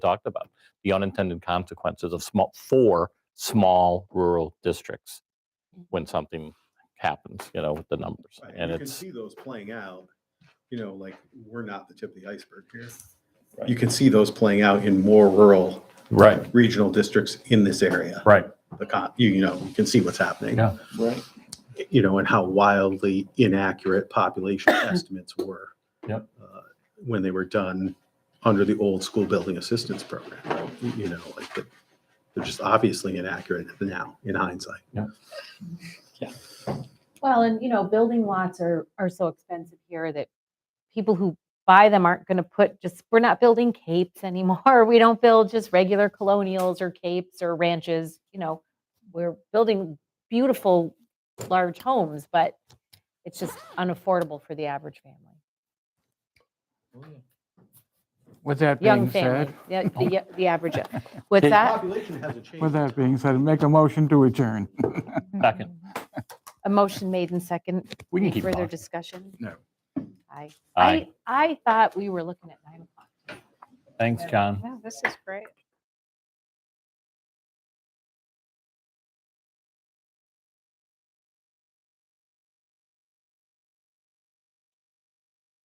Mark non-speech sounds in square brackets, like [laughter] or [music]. talked about the unintended consequences of small for small rural districts Mm. when something happens, you know, with the numbers. Right, And You can it's see those playing out, you know, like, we're not the tip of the iceberg here. Right. You can see those playing out in more rural, right, regional districts in this area. right. The con, you, you know, you can see what's happening. Yeah. Right. You know, and how wildly inaccurate [coughs] population estimates were. Yep. uh, When they were done under the old school building assistance program, right? you know, like, the- they're just obviously inaccurate now in hindsight. Well, and you know, building lots are, are so expensive here that people who buy them aren't going to put just, we're not building capes [laughs] anymore. We don't build just regular colonials or capes or ranches, you know, we're building beautiful, large homes, but it's just unaffordable for the average family, With that young being family, said, Oh. yeah, the, yeah, the average. [laughs] What's that? Population hasn't changed. with that being said, make a motion to adjourn. Second. [laughs] A motion made in second. We can Any keep Further talking. discussion? No. Aye. Aye. I, I thought we were looking at nine o'clock. Thanks, John. Yeah, this is great.